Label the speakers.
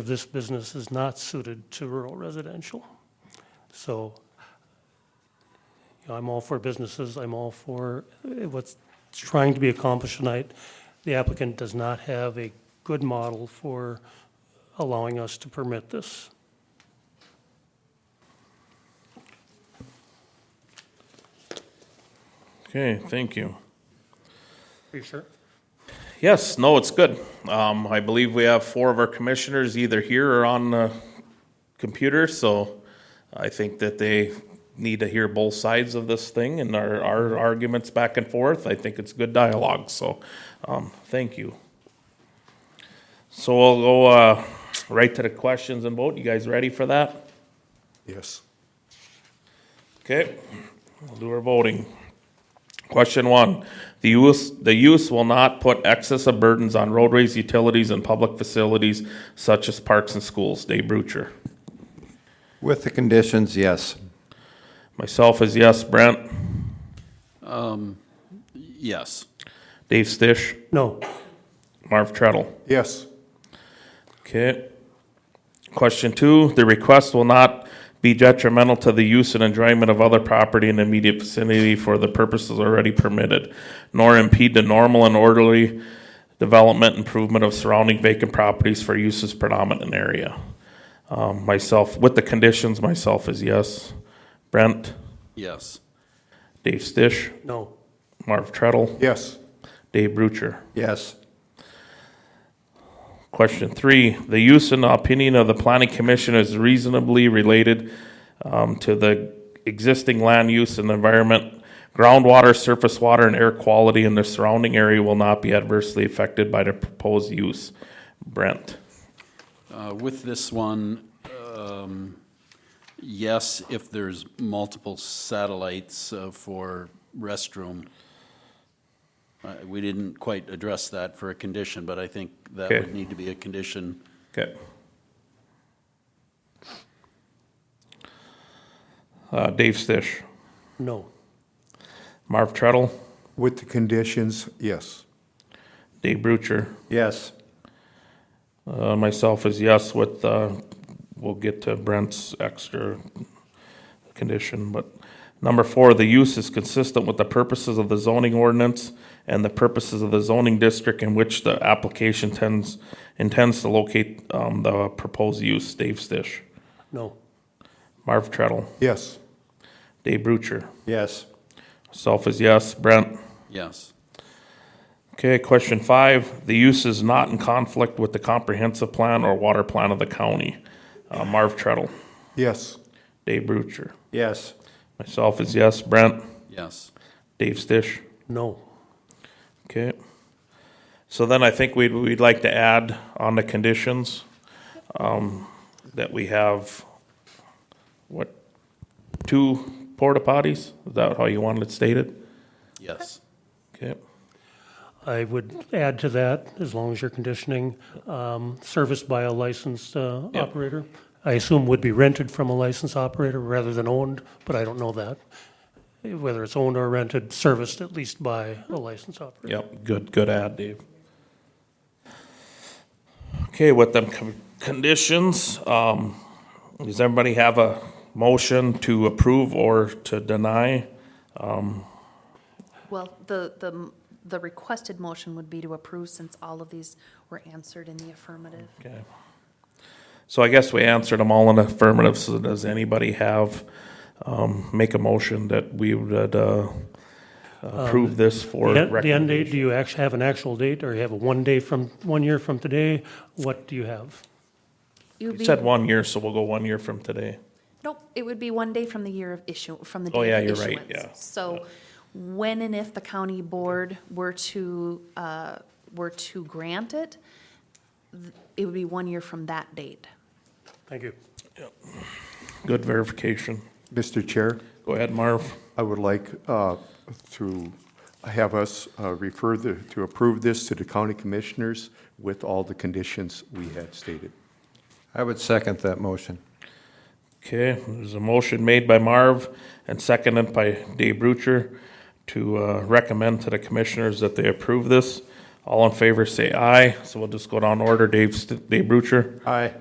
Speaker 1: of this business is not suited to rural residential. So you know, I'm all for businesses, I'm all for uh, what's trying to be accomplished tonight. The applicant does not have a good model for allowing us to permit this.
Speaker 2: Okay, thank you.
Speaker 1: Are you sure?
Speaker 2: Yes, no, it's good. Um, I believe we have four of our commissioners either here or on the computer, so I think that they need to hear both sides of this thing and our, our arguments back and forth. I think it's good dialogue, so, um, thank you. So we'll go, uh, right to the questions and vote. You guys ready for that?
Speaker 3: Yes.
Speaker 2: Okay, we'll do our voting. Question one, the use, the use will not put excessive burdens on roadways, utilities, and public facilities such as parks and schools. Dave Brucher.
Speaker 4: With the conditions, yes.
Speaker 2: Myself is yes. Brent?
Speaker 5: Yes.
Speaker 2: Dave Stish?
Speaker 1: No,
Speaker 2: Marv Treadle?
Speaker 3: Yes.
Speaker 2: Okay. Question two, the request will not be detrimental to the use and enjoyment of other property in the immediate vicinity for the purposes already permitted, nor impede the normal and orderly development improvement of surrounding vacant properties for uses predominant in area. Um, myself, with the conditions, myself is yes. Brent,
Speaker 5: Yes.
Speaker 2: Dave Stish,
Speaker 1: no,
Speaker 2: Marv Treadle,
Speaker 3: Yes.
Speaker 2: Dave Brucher.
Speaker 4: Yes.
Speaker 2: Question three, the use and opinion of the planning commission is reasonably related um, to the existing land use and environment. Groundwater, surface water, and air quality in the surrounding area will not be adversely affected by the proposed use. Brent?
Speaker 5: Uh, With this one, um, yes, if there's multiple satellites uh, for restroom. Uh, We didn't quite address that for a condition, but I think that
Speaker 2: Okay.
Speaker 5: would need to be a condition.
Speaker 2: Okay. Uh, Dave Stish,
Speaker 1: no,
Speaker 2: Marv Treadle,
Speaker 3: With the conditions, yes.
Speaker 2: Dave Brucher.
Speaker 4: Yes.
Speaker 2: Uh, myself is yes with, uh, we'll get to Brent's extra condition, but number four, the use is consistent with the purposes of the zoning ordinance and the purposes of the zoning district in which the application tends, intends to locate, um, the proposed use. Dave Stish,
Speaker 1: no,
Speaker 2: Marv Treadle,
Speaker 3: Yes.
Speaker 2: Dave Brucher.
Speaker 4: Yes.
Speaker 2: Self is yes. Brent?
Speaker 5: Yes.
Speaker 2: Okay, question five, the use is not in conflict with the comprehensive plan or water plan of the county. Uh, Marv Treadle,
Speaker 3: Yes.
Speaker 2: Dave Brucher.
Speaker 4: Yes.
Speaker 2: Myself is yes. Brent?
Speaker 5: Yes.
Speaker 2: Dave Stish?
Speaker 1: no.
Speaker 2: Okay. So then I think we'd, we'd like to add on the conditions, um, that we have, what, two porta potties? Is that how you wanted it stated?
Speaker 5: Yes.
Speaker 2: Okay.
Speaker 1: I would add to that, as long as you're conditioning, um, serviced by a licensed uh,
Speaker 2: Yep.
Speaker 1: operator. I assume would be rented from a licensed operator rather than owned, but I don't know that. Whether it's owned or rented, serviced at least by a licensed operator.
Speaker 2: Yep, good, good add, Dave. Okay, with them con- conditions, um, does everybody have a motion to approve or to deny?
Speaker 6: Well, the, the, the requested motion would be to approve since all of these were answered in the affirmative.
Speaker 2: Okay. So I guess we answered them all in affirmative, so does anybody have, um, make a motion that we would, uh, approve this for?
Speaker 1: Um, The en- the end
Speaker 2: recommendation?
Speaker 1: date, do you actually have an actual date, or you have a one day from, one year from today? What do you have?
Speaker 6: It would
Speaker 2: You
Speaker 6: be,
Speaker 2: said one year, so we'll go one year from today.
Speaker 6: nope, it would be one day from the year of issue, from the
Speaker 2: Oh, yeah,
Speaker 6: day
Speaker 2: you're
Speaker 6: of
Speaker 2: right,
Speaker 6: issuance.
Speaker 2: yeah.
Speaker 6: So when and if the county board were to, uh, were to grant it, th- it would be one year from that date.
Speaker 1: Thank you.
Speaker 2: Good verification.
Speaker 3: Mr. Chair,
Speaker 2: Go ahead, Marv.
Speaker 3: I would like uh, to have us uh, refer the, to approve this to the county commissioners with all the conditions we had stated.
Speaker 4: I would second that motion.
Speaker 2: Okay, there's a motion made by Marv and seconded by Dave Brucher to uh, recommend to the commissioners that they approve this. All in favor, say aye. So we'll just go down order. Dave, St- Dave Brucher,
Speaker 4: Aye.